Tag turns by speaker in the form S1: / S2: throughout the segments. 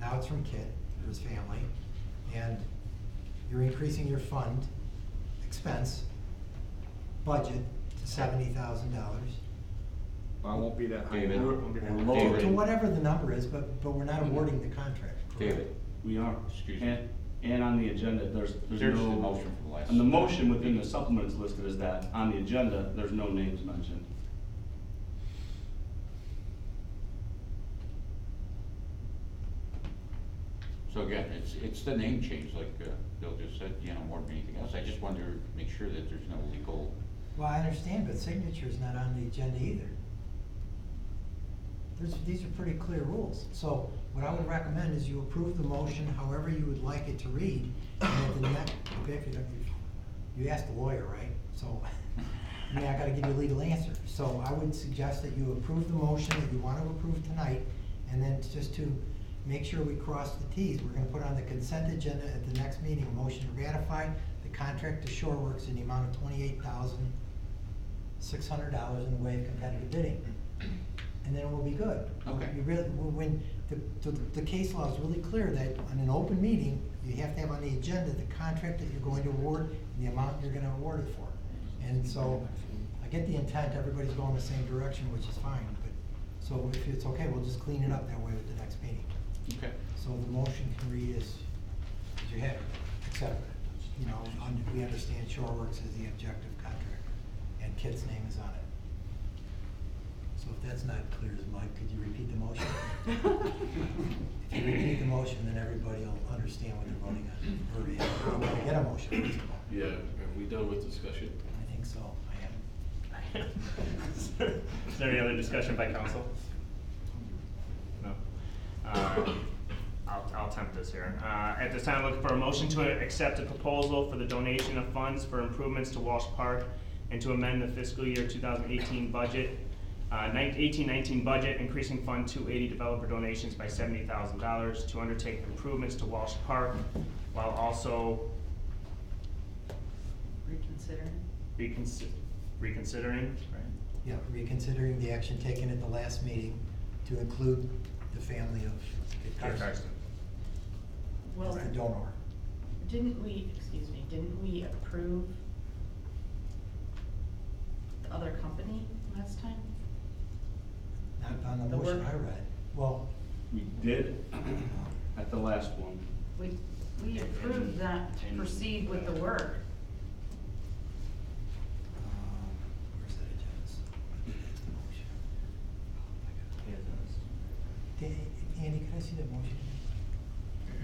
S1: Now it's from Kit or his family, and you're increasing your fund expense budget to seventy thousand dollars.
S2: Well, it won't be that high.
S3: David.
S2: It won't be that
S4: We're
S2: high.
S4: lower.
S1: To whatever the number is, but, but we're not awarding the contract. correct?
S3: David,
S4: We are.
S3: Excuse me.
S4: And, and on the agenda, there's,
S3: There's
S4: there's
S3: the
S4: no.
S3: motion from last-
S4: And the motion within the supplements listed is that on the agenda, there's no names mentioned.
S3: so again, it's, it's the name change, like uh, Bill just said, you know, more than anything else. I just wanted to make sure that there's no legal,
S1: Well, I understand, but signature's not on the agenda either. There's, these are pretty clear rules, so what I would recommend is you approve the motion however you would like it to read, and at the next, okay, if you don't, you, you asked the lawyer, right? So, I mean, I gotta give you a legal answer, so I would suggest that you approve the motion that you wanna approve tonight, and then just to make sure we cross the Ts, we're gonna put on the consent agenda at the next meeting, a motion to ratify the contract to Shoreworks in the amount of twenty-eight thousand six hundred dollars in the way of competitive bidding. And then we'll be good.
S3: Okay.
S1: You really, when, the, the, the case law is really clear that on an open meeting, you have to have on the agenda the contract that you're going to award, and the amount you're gonna award it for. And so, I get the intent, everybody's going the same direction, which is fine, but, so if it's okay, we'll just clean it up that way with the next meeting.
S3: okay.
S1: So the motion can read as, as you have, except, you know, un- we understand Shoreworks is the objective contractor, and Kit's name is on it. So if that's not clear as mud, could you repeat the motion? If you repeat the motion, then everybody will understand what they're voting on, or if we're gonna get a motion, first of all.
S5: Yeah, are we done with discussion?
S1: I think so, I am.
S6: Is there any other discussion by council? No. Uh, I'll, I'll attempt this here. Uh, At this time, looking for a motion to accept a proposal for the donation of funds for improvements to Walsh Park and to amend the fiscal year 2018 budget, uh, 1819 budget, increasing Fund 280 developer donations by $70,000 to undertake improvements to Walsh Park while also
S7: Reconsidering?
S6: reconsi- reconsidering, right?
S1: Yeah, reconsidering the action taken at the last meeting to include the family of Kit
S6: Kit
S1: Carson.
S6: Carson.
S7: Well,
S1: As the donor.
S7: didn't we, excuse me, didn't we approve the other company last time?
S1: Not on the
S7: The
S1: motion
S7: work-
S1: I read. Well, uh,
S4: We did at the last one.
S7: We, we approved that to proceed with the work.
S1: um, where's that agenda? Da- Andy, could I see that motion?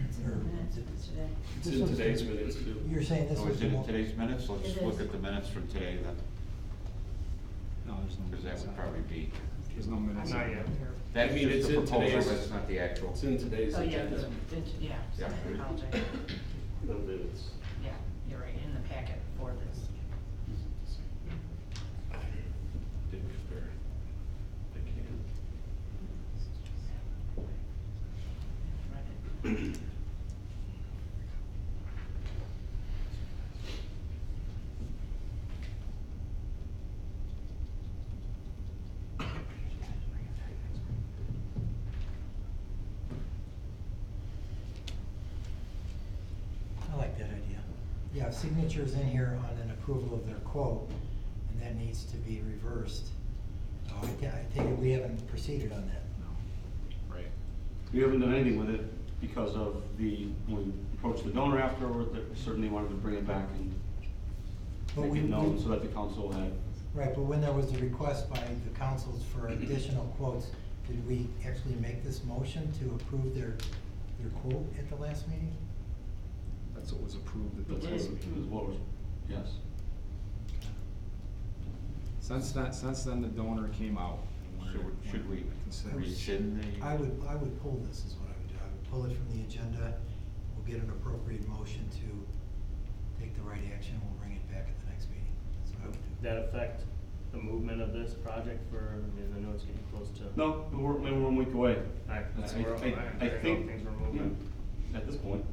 S7: It's in the
S1: Or-
S7: minutes it's today.
S5: It's
S1: This
S5: in
S1: was-
S5: today's minutes Oh, too.
S1: You're saying this
S3: So
S1: was
S3: is
S1: the
S3: it
S1: mo-
S3: in today's minutes? Let's
S7: It
S3: look
S7: is.
S3: at the minutes from today then,
S2: No, there's no.
S3: because that would probably be,
S2: There's no minutes.
S6: Not yet.
S3: that's
S5: I mean,
S3: just
S5: it's in
S3: the proposal,
S5: today's-
S3: that's not the actual.
S5: It's in today's
S7: Oh, yeah,
S5: agenda,
S7: the- it- yeah, so
S3: Yeah.
S7: I apologize.
S5: the minutes.
S7: Yeah, you're right, in the packet for this.
S5: Didn't compare. I can't.
S7: Read it.
S1: I like that idea. Yeah, signatures in here on an approval of their quote, and that needs to be reversed. Uh, I ta- I take it we haven't proceeded on that.
S2: No.
S5: Right.
S4: We haven't done anything with it because of the, when we approached the donor afterward, that certainly wanted to bring it back and
S1: But we-
S4: make it known
S1: we-
S4: so that the council had,
S1: Right, but when there was a request by the councils for additional quotes, did we actually make this motion to approve their, their quote at the last meeting?
S2: That's what was approved at the
S7: It
S2: last
S7: is.
S2: meeting.
S4: was what was, yes.
S2: Since that, since then, the donor came out. and we're-
S3: So should we
S2: Consider-
S3: rescind the?
S1: I would, I would pull this is what I would do. I would pull it from the agenda. We'll get an appropriate motion to take the right action. We'll bring it back at the next meeting. That's what I would do.
S6: that affect the movement of this project for, I mean, I know it's getting close to.
S4: No, we're, maybe we're one week away.
S6: I,
S4: That's-
S6: I, I- I don't know if
S4: think-
S6: things were moving.
S4: yeah, At this point,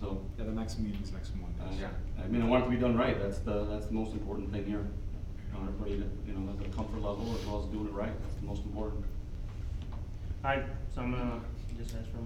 S4: so,
S2: Yeah, the next meeting's next
S4: uh,
S2: Monday.
S4: I mean, I want it to be done right, that's the, that's the most important thing here. I want everybody to, you know, at the comfort level as well as doing it right, that's the most important.
S6: Alright, so I'm gonna just ask for a